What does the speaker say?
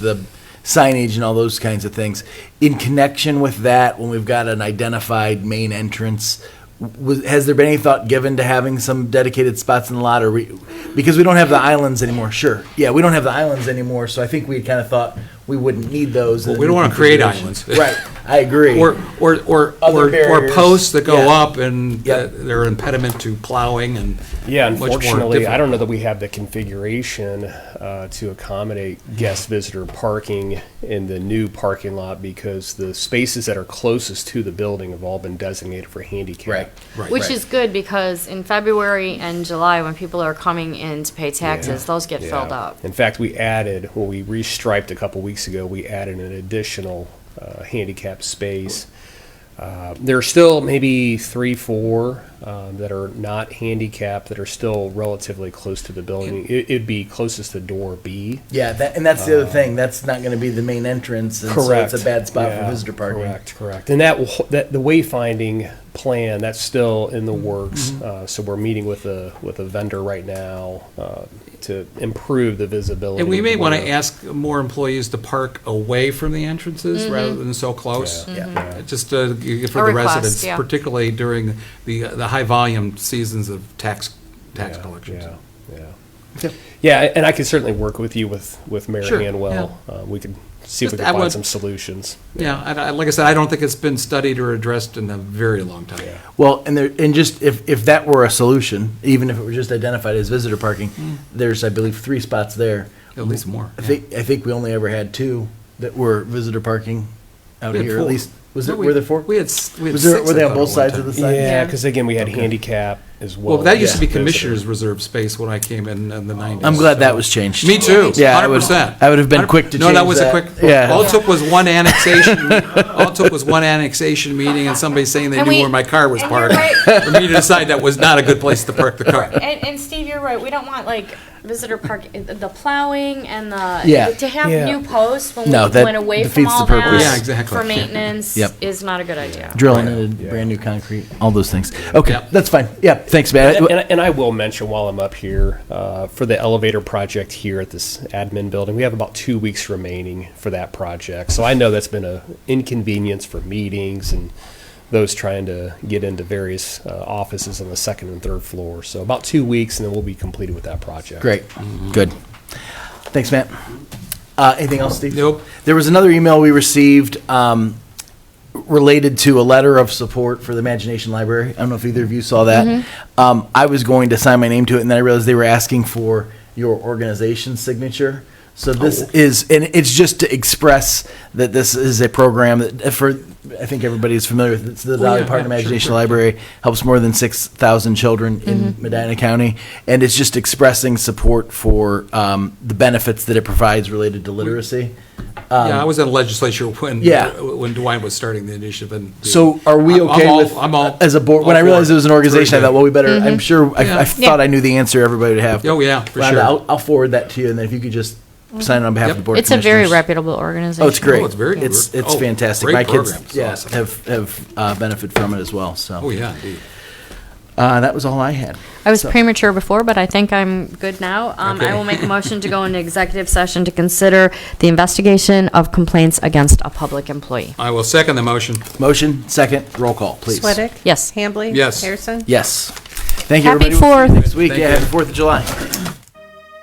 the signage and all those kinds of things. In connection with that, when we've got an identified main entrance, was, has there been any thought given to having some dedicated spots in the lot, or we, because we don't have the islands anymore? Sure, yeah, we don't have the islands anymore, so I think we kind of thought we wouldn't need those. in Well, the we don't new wanna create configuration. islands. right? I agree. Or, or, or, Other or or barriers. posts that go Yeah. up and Yeah. that they're impediment to plowing and. Yeah, much more unfortunately, I difficult. don't know that we have the configuration uh, to accommodate guest visitor parking in the new parking lot because the spaces that are closest to the building have all been designated for handicap. Right. Which Right. is good because in February and July, when people are coming in to pay taxes, those get filled Yeah. up. In fact, we added, when we restriped a couple weeks ago, we added an additional uh, handicap space. Uh, There are still maybe three, four um, that are not handicapped, that are still relatively close to the building. It- It'd be closest to door B. Yeah, that, and that's the other thing. That's not going to be the main entrance, and so it's a bad spot Yeah, for visitor parking. Correct, correct. And that, will- that, the wayfinding plan, that's still in the works. Uh, so we're meeting with a, with a vendor right now, uh, to improve the visibility. And we may want to where- ask more employees to park away from the entrances rather than so close. Yeah, yeah. Uh, Just uh, g- for Mm-hmm. A the request, residents, yeah. particularly during the, uh, the high volume seasons of tax, tax Yeah, collections. Yeah, yeah. Yeah, and I can certainly work with you with, with Mayor Sure, Hanwell. Uh, we could see if we Just- can I find would- some solutions. Yeah, I- I- like I said, I don't think it's been studied or addressed in a very long time. Well, and there, and just if, if that were a solution, even if it were just identified as visitor parking, there's, I believe, three spots there. Hmm. At least more, I think, I think we only ever had two that were visitor parking out We had here, at four. least. Was No, it, we- were there four? We had, s- we had Was there, six, were I they thought, on at both one sides time. of the side? Yeah, because again, we had handicap as well. Well, that used to be Yeah. commissioner's reserve space when I came in in the 90s. I'm glad that was changed. Me too. Yeah, I Hundred would- percent. I would have been quick to No, that change was a that. quick, Yeah. all it took was one annexation, all it took was one annexation meeting and somebody saying they And knew we- where my car was and you're parked. right. For me to decide that was not a good place to park the car. And, and Steve, you're right. We don't want like visitor park, eh, the plowing and the Yeah. to have Yeah. new posts when No, we that went away from defeats all the purpose. that Yeah, exactly. for Yeah. maintenance Yep. is not a good idea. Drilling into brand new concrete, all those things. Okay, Yep. that's fine. Yeah, thanks, man. And, and, and I will mention while I'm up here, uh, for the elevator project here at this admin building, we have about two weeks remaining for that project. So I know that's been a inconvenience for meetings and those trying to get into various uh, offices on the second and third floor. So about two weeks, and then we'll be completed with that project. Great, good. Thanks, Matt. Uh, anything else, Steve? Nope. There was another email we received, um, related to a letter of support for the Imagination Library. I don't know if either of you saw that. Mm-hmm. Um, I was going to sign my name to it, and then I realized they were asking for your organization's signature. So Oh. this is, and it's just to express that this is a program that, for, I think everybody is familiar with, it's the Valley Oh, yeah, Park yeah, sure, Imagination sure. Mm-hmm. Library, helps more than 6,000 children in Medina County, and it's just expressing support for um, the benefits that it provides related to literacy. Yeah, I was in legislature when, Yeah. when Dwight was starting the initiative and. So are we I'm- I'm okay all- with, I'm all- as a board, when all I for realized it was an Very organization, I good. thought, well, we better, Mm-hmm. I'm sure, I, I Yeah. thought I knew the answer everybody would have. Oh, yeah, for Rhonda, sure. I'll, I'll forward that to you, and then if you could just sign it on behalf of the Yep. board of Mm-hmm. It's a very Commissioners. reputable organization. Oh, it's great. Oh, it's very good. It's, it's Oh, fantastic. great My kids, program. It's yeah, awesome. have, have uh, benefit from it as well, so. Oh, yeah, indeed. Uh, that was all I had. I was So- premature before, but I think I'm good now. Um, I will make a motion to go into executive session to consider the investigation of complaints against a public employee. I will second the motion. Motion, second, roll call, please. Sweattick? Yes. Hambley? Yes. Harrison? Yes. Thank you, Happy everybody. We'll see you Fourth. Next week, Thank yeah, you. happy Fourth of July.